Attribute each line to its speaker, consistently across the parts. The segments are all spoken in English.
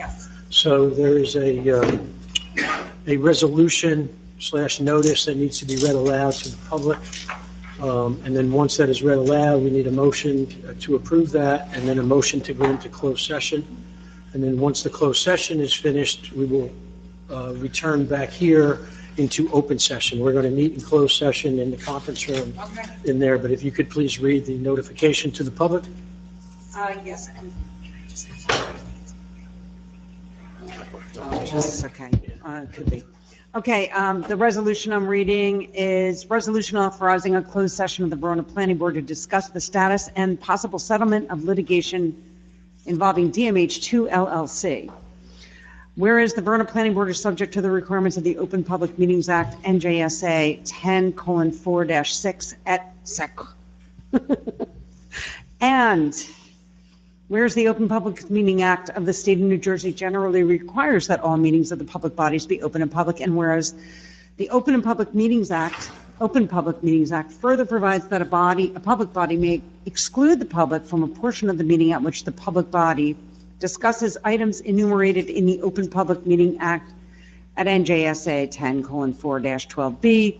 Speaker 1: Yes.
Speaker 2: So there is a, uh, a resolution slash notice that needs to be read aloud to the public. Um, And then once that is read aloud, we need a motion uh, to approve that, and then a motion to go into closed session. And then once the closed session is finished, we will uh, return back here into open session. We're going to meet in closed session in the conference room
Speaker 1: Okay.
Speaker 2: in there, but if you could please read the notification to the public?
Speaker 1: Uh, yes, and. Oh, This is okay. Uh, it could be. Okay, um, the resolution I'm reading is resolution authorizing a closed session of the Verona Planning Board to discuss the status and possible settlement of litigation involving DMH2 LLC. Whereas the Verona Planning Board is subject to the requirements of the Open Public Meetings Act, NJSA 10:4-6 et sec. And whereas the Open Public Meeting Act of the state of New Jersey generally requires that all meetings of the public bodies be open and public, and whereas the Open and Public Meetings Act, Open Public Meetings Act further provides that a body, a public body may exclude the public from a portion of the meeting at which the public body discusses items enumerated in the Open Public Meeting Act at NJSA 10:4-12B,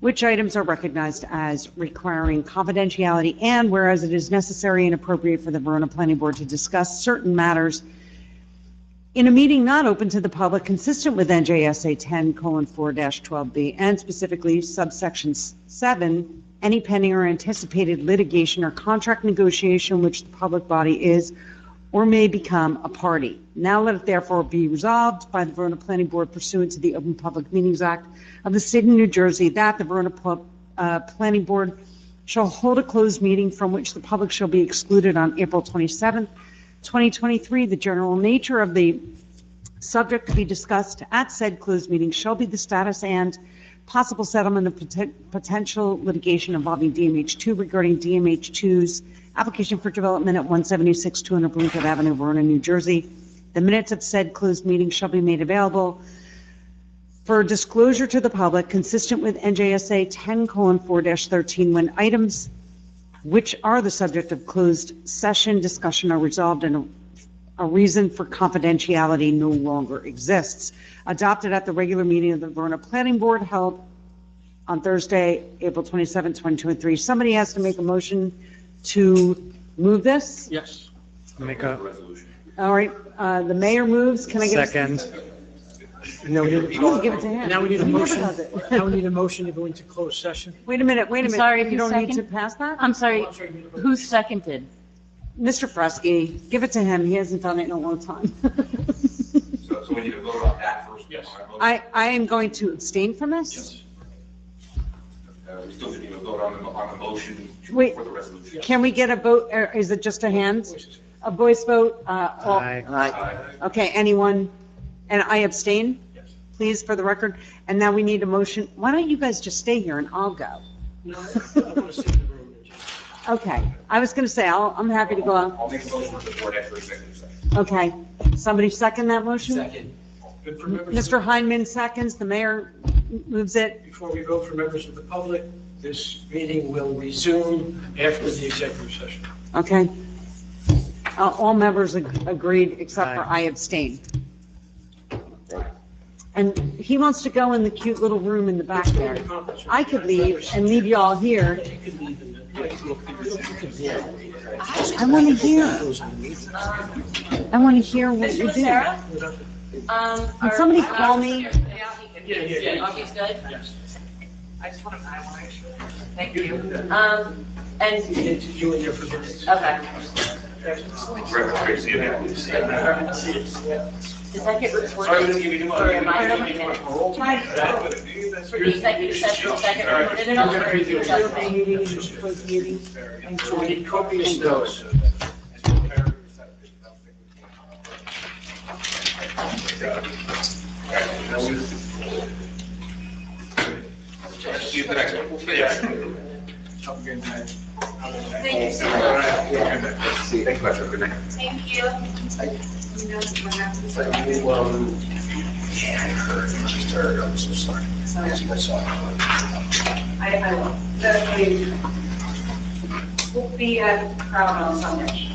Speaker 1: which items are recognized as requiring confidentiality, and whereas it is necessary and appropriate for the Verona Planning Board to discuss certain matters in a meeting not open to the public consistent with NJSA 10:4-12B, and specifically subsection s- 7, any pending or anticipated litigation or contract negotiation which the public body is or may become a party. Now let it therefore be resolved by the Verona Planning Board pursuant to the Open Public Meetings Act of the State of New Jersey that the Verona Pub- uh, Planning Board shall hold a closed meeting from which the public shall be excluded on April 27th, 2023. The general nature of the subject to be discussed at said closed meeting shall be the status and possible settlement of poten- potential litigation involving DMH2 regarding DMH2's application for development at 176 200 Bloomfield Avenue, Verona, New Jersey. The minutes of said closed meeting shall be made available for disclosure to the public consistent with NJSA 10:4-13 when items which are the subject of closed session discussion are resolved and a a reason for confidentiality no longer exists. Adopted at the regular meeting of the Verona Planning Board held on Thursday, April 27, 2023. Somebody has to make a motion to move this.
Speaker 2: Yes.
Speaker 3: Make a
Speaker 1: All right, uh, the mayor moves. Can I get a?
Speaker 3: second.
Speaker 2: No, we didn't.
Speaker 1: Please give it to him.
Speaker 2: Now we need a
Speaker 1: He never
Speaker 2: motion,
Speaker 1: does it.
Speaker 2: now we need a motion to go into closed session.
Speaker 1: Wait a minute, wait a
Speaker 4: I'm
Speaker 1: minute.
Speaker 4: sorry,
Speaker 1: You
Speaker 4: who's
Speaker 1: don't need to
Speaker 4: second? Um,
Speaker 1: pass that?
Speaker 4: I'm sorry, who seconded?
Speaker 1: Mr. Fresky, give it to him. He hasn't done it in a long time.
Speaker 5: So, so we need to vote on that first. Yes.
Speaker 1: I, I am going to abstain from this.
Speaker 5: Uh, we still need to vote on the, on the motion to-
Speaker 1: Wait.
Speaker 5: for the resolution.
Speaker 1: Can we get a vote, or is it just a hand? A voice vote? Uh, all-
Speaker 3: Aye.
Speaker 5: Aye.
Speaker 1: Okay, anyone? And I abstain, please, for the record. And now we need a motion. Why don't you guys just stay here and I'll go? Okay, I was going to say, I'll, I'm happy to go out.
Speaker 5: I'll make a motion for the board after executive session.
Speaker 1: Okay, somebody second that motion? Second. Mr. Heinman seconds, the mayor moves it.
Speaker 2: Before we go for members of the public, this meeting will resume after the executive session.
Speaker 1: Okay. Uh, All members ag- agreed, except for I
Speaker 3: Aye.
Speaker 1: abstain. And he wants to go in the cute little room in the back there. I could leave and leave y'all here. I want to hear, I want to hear what you do.
Speaker 6: Sarah? Um.
Speaker 1: Can
Speaker 6: our-
Speaker 1: somebody
Speaker 6: our-
Speaker 1: call me?
Speaker 6: Yeah, yeah, yeah. Augie's good? Yes. I just want to, I want to, make sure. thank you. Um, and,
Speaker 2: You in there for minutes.
Speaker 6: okay,
Speaker 5: Director Tracy, you have to say that.
Speaker 6: does that get
Speaker 5: Sorry, we didn't
Speaker 6: recorded?
Speaker 5: give you the
Speaker 6: Or
Speaker 5: money.
Speaker 6: am I giving it? For the executive session, second recorded and all?
Speaker 2: We need copious notes.
Speaker 5: See you at the next one. Yeah.
Speaker 6: Thank you so much.
Speaker 5: Thank you, Patrick. Good night.
Speaker 6: Thank you. I, I will. We'll be at Crown on Sunday.